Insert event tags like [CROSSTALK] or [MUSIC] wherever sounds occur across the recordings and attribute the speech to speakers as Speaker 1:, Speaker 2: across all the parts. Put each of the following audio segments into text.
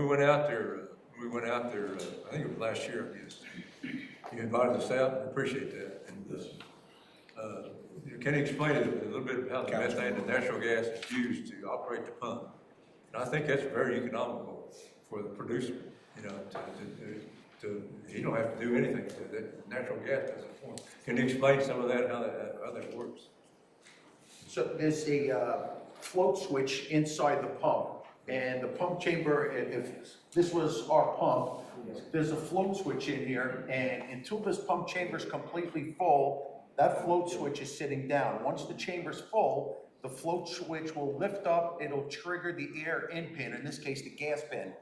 Speaker 1: We went out there, uh, we went out there, uh, I think it was last year, I guess. You invited us out, and appreciate that. And uh, uh, you Can you explain it a little bit about how the methane and natural gas is used to operate the pump? And I think that's very economical for the producer, you know, to, to- to, to, he don't have to do anything, to that natural gas doesn't form. Can you explain some of that, how that, how that works?
Speaker 2: So there's a uh, float switch inside the pump, and the pump chamber, i- if this was our pump, there's a float switch in here, and until this pump chamber is completely full, that float switch is sitting down. Once the chamber's full, the float switch will lift up, it'll trigger the air in pin, in this case, the gas pin.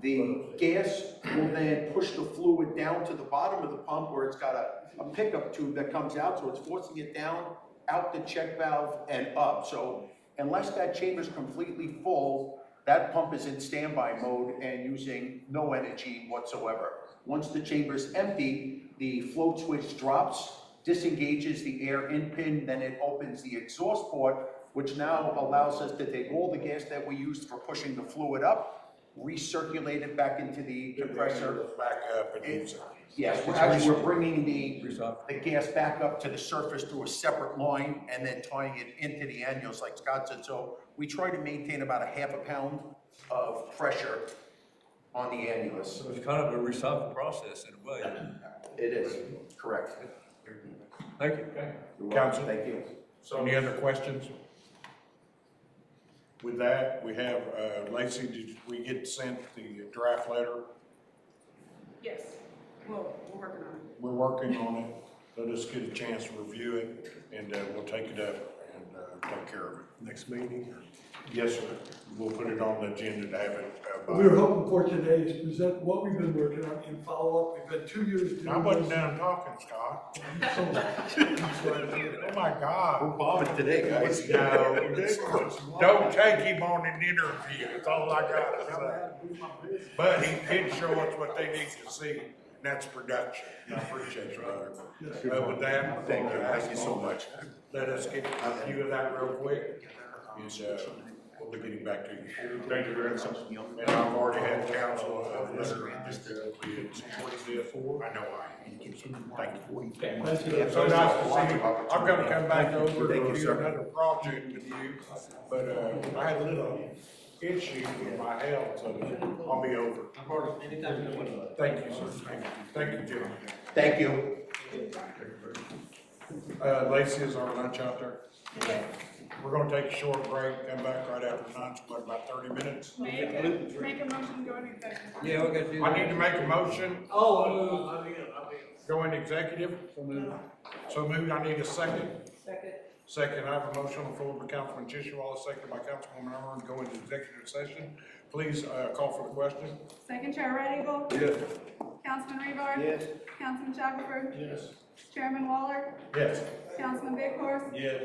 Speaker 2: The gas will then push the fluid down to the bottom of the pump where it's got a, a pickup tube that comes out, so it's forcing it down, out the check valve and up. So unless that chamber's completely full, that pump is in standby mode and using no energy whatsoever. Once the chamber's empty, the float switch drops, disengages the air in pin, then it opens the exhaust port, which now allows us to take all the gas that we used for pushing the fluid up, recirculate it back into the compressor.
Speaker 3: Back up and use it.
Speaker 2: Yes, we're actually, we're bringing the,
Speaker 1: Resolve.
Speaker 2: the gas back up to the surface through a separate line and then tying it into the annuals like Scott said. So we try to maintain about a half a pound of pressure on the annulus.
Speaker 1: So it's kind of a recycling process in a way.
Speaker 2: It is, correct.
Speaker 1: Thank you.
Speaker 3: Council,
Speaker 2: Thank you.
Speaker 3: any other questions? With that, we have, uh, Lacey, did we get sent the draft letter?
Speaker 4: Yes, well, we're working on it.
Speaker 3: We're working on it. Let us get a chance to review it and, uh, we'll take it up and, uh, take care of it.
Speaker 5: next meeting.
Speaker 3: Yes, sir. We'll put it on the agenda to have it. uh, by-
Speaker 5: We were hoping for today is present what we've been working on and follow up. We've been two years. doing
Speaker 3: I wasn't
Speaker 5: this.
Speaker 3: done talking,
Speaker 5: [LAUGHS]
Speaker 3: Scott.
Speaker 5: So-
Speaker 3: Oh, my God.
Speaker 2: We're bombing today, guys. [LAUGHS]
Speaker 3: No, don't take him on an interview, that's all I gotta say. But he did show us what they need to see, and that's production. I appreciate you, brother. But with that.
Speaker 2: Thank you. Thank you so much.
Speaker 3: Let us get a view of that real quick, and, uh, we'll be getting back to you. Thank you very much. And I've already had counsel, uh, listen, just, uh, we had supported this, I know I am. Thank you.
Speaker 5: That's it.
Speaker 3: So nice to see you. I'm gonna come back over to review another project with you, but, uh, I had a little issue with my health, so I'll be over. Thank you, sir. Thank you. Thank you, Jim.
Speaker 2: Thank you.
Speaker 3: Uh, Lacey, is our lunch out there? We're gonna take a short break, come back right after lunch, what, about thirty minutes?
Speaker 4: Make a, make a motion to go into executive. session.
Speaker 6: Yeah, we got you.
Speaker 3: I need to make a motion,
Speaker 6: Oh, I know,
Speaker 5: uh,
Speaker 6: I mean, I mean.
Speaker 3: go into executive. So moved. I need a second.
Speaker 4: Second.
Speaker 3: Second, I have a motion on the floor by Councilman Tishewala, second by Councilwoman Irwin, to go into executive session. Please, uh, call for the question.
Speaker 4: Second Chair Red Eagle.
Speaker 1: Yes.
Speaker 4: Councilman Rebar. Yes. Councilman Shackelford.
Speaker 3: Yes.
Speaker 4: Chairman Waller.
Speaker 3: Yes.
Speaker 4: Councilman Big Horse.
Speaker 3: Yes.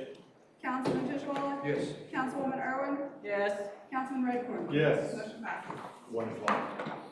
Speaker 4: Councilman Tishwala.
Speaker 1: Yes.
Speaker 4: Councilwoman Irwin. Yes. Councilman Redcorn. Yes. Motion passes.
Speaker 3: One is long.